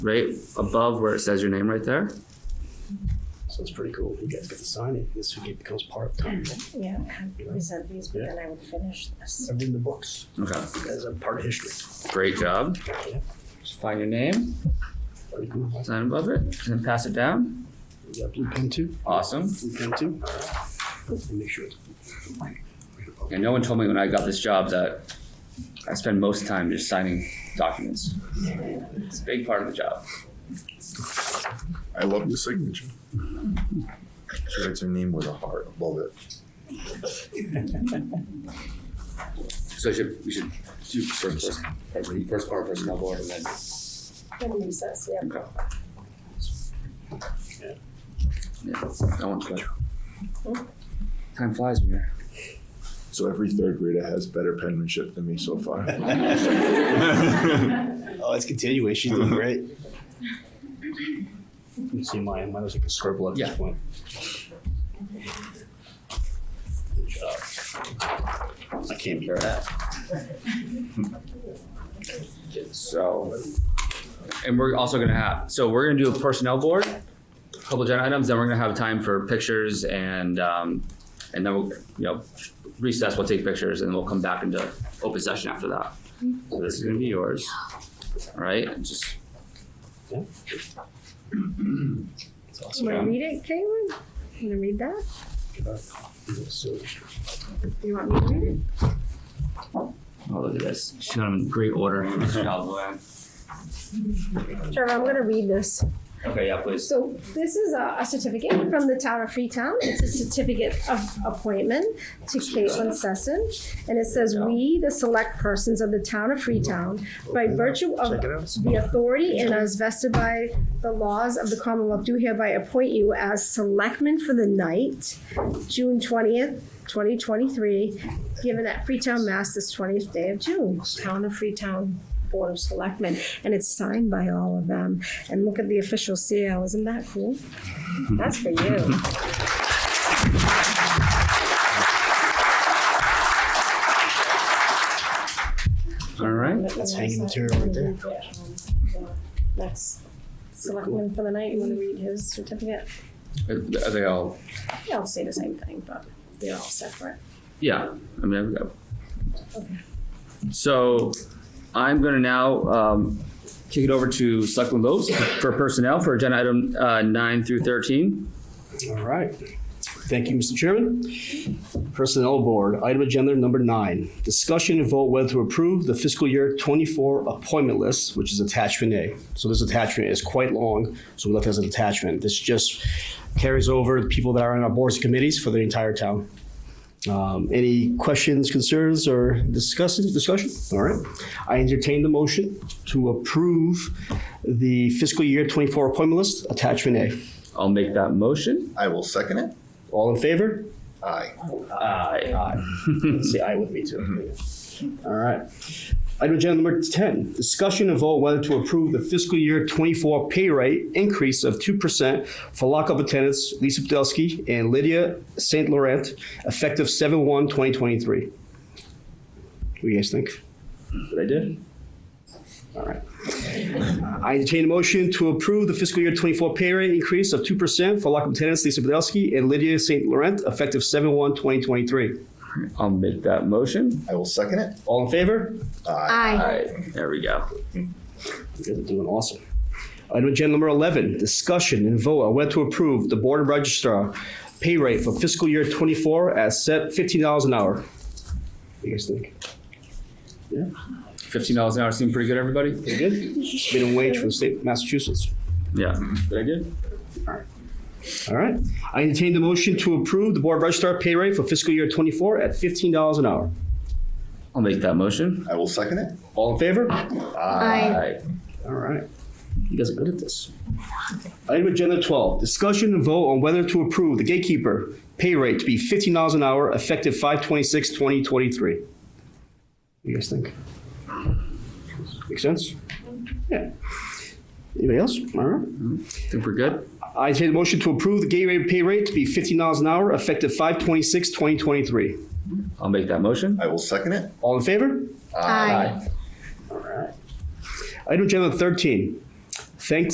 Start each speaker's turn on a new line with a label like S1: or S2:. S1: right above where it says your name right there.
S2: So it's pretty cool. if You guys get to sign it. This would get- becomes part of time.
S3: Yeah, I present these, but then I would finish this.
S2: I'm in the books.
S1: Okay,
S2: You guys are part of history.
S1: great job.
S2: Yeah,
S1: Just find your name,
S2: pretty cool.
S1: sign above it, and then pass it down.
S2: You got blue pen too?
S1: Awesome.
S2: Blue pen too? Let me Make sure. it's-
S1: And no one told me when I got this job that I spend most time just signing documents. It's a big part of the job.
S4: I love the signature. She writes her name with a heart above it.
S1: So I should, we should do first, first, first part of personnel board and then.
S3: Then recess, yeah.
S1: Okay. Yeah, that one's good. Time flies when you're.
S4: So every third grader has better penmanship than me so far.
S2: Oh, it's continuing. She's doing great. You can see mine. Mine was like a scribble at
S1: Yeah.
S2: this point. Good job. I can't be that.
S1: So, and we're also gonna have, so we're gonna do a personnel board, a couple agenda items, then we're gonna have time for pictures and, um, and then we'll, you know, recess, we'll take pictures and we'll come back into open session after that. So this is gonna be yours, all right? And Just,
S2: It's awesome.
S3: Want to read it, Caitlin? Want to read that?
S2: So,
S3: You want me to read it?
S1: oh, look at this. She's got them in great order.
S3: Trevor, I'm gonna read this.
S1: Okay, yeah, please.
S3: So this is a, a certificate from the town of Freetown. It's a certificate of appointment to Caitlin Sesson. And it says, we, the select persons of the town of Freetown, by virtue of
S2: check it out.
S3: the authority and as vested by the laws of the Commonwealth, do hereby appoint you as selectman for the night, June twentieth, twenty twenty-three, given at Freetown, Mass, this twentieth day of June, town of Freetown Board of Selectmen, and it's signed by all of them. And look at the official seal, isn't that cool? That's for you.
S1: All right.
S2: That's hanging material right there.
S3: Next, selectman for the night, you wanna read his certificate?
S1: Are are they all,
S3: They all say the same thing, but they're all separate.
S1: yeah, I mean, I've got. So I'm gonna now, um, kick it over to Selectman Lopes for personnel for agenda item, uh, nine through thirteen.
S2: All right. Thank you, Mr. Chairman. Personnel Board, item agenda number nine, discussion and vote whether to approve the fiscal year twenty-four appointment list, which is attachment A. So this attachment is quite long, so we left it as an attachment. This just carries over the people that are on our boards and committees for the entire town. Um, any questions, concerns, or discussions, discussion? All right. I entertain the motion to approve the fiscal year twenty-four appointment list, attachment A.
S1: I'll make that motion.
S4: I will second it.
S2: All in favor?
S4: Aye.
S1: Aye.
S2: Aye. Say aye with me too. All right. Item agenda number ten, discussion and vote whether to approve the fiscal year twenty-four pay rate increase of two percent for lockup attendants Lisa Podolsky and Lydia Saint Laurent effective seven one twenty twenty-three. What do you guys think? What I did? All right. I entertain a motion to approve the fiscal year twenty-four pay rate increase of two percent for lockup attendants Lisa Podolsky and Lydia Saint Laurent effective seven one twenty twenty-three.
S1: I'll make that motion.
S4: I will second it.
S2: All in favor?
S4: Aye.
S3: Aye.
S1: Aye. There we go.
S2: You guys are doing awesome. Item agenda number 11, discussion and vote on whether to approve the Board of Registrar pay rate for fiscal year 24 at set $15 an hour. What do you guys think?
S1: Fifteen dollars an hour seemed pretty good, everybody?
S2: Pretty good? Minimum wage for the state of Massachusetts.
S1: Yeah. Did I good?
S2: All right. I entertain the motion to approve the Board of Registrar pay rate for fiscal year 24 at $15 an hour.
S1: I'll make that motion.
S4: I will second it.
S2: All in favor?
S1: Aye.
S2: All right. You guys are good at this. Item agenda twelve, discussion and vote on whether to approve the gatekeeper pay rate to be fifteen dollars an hour effective five twenty-six, twenty twenty-three. What do you guys think? Make sense? Yeah. Anybody else? All right.
S1: Think we're good?
S2: I entertain a motion to approve the gate rate pay rate to be fifteen dollars an hour effective five twenty-six, twenty twenty-three.
S1: I'll make that motion.
S4: I will second it.
S2: All in favor?
S3: Aye.
S2: Item agenda 13, Thanks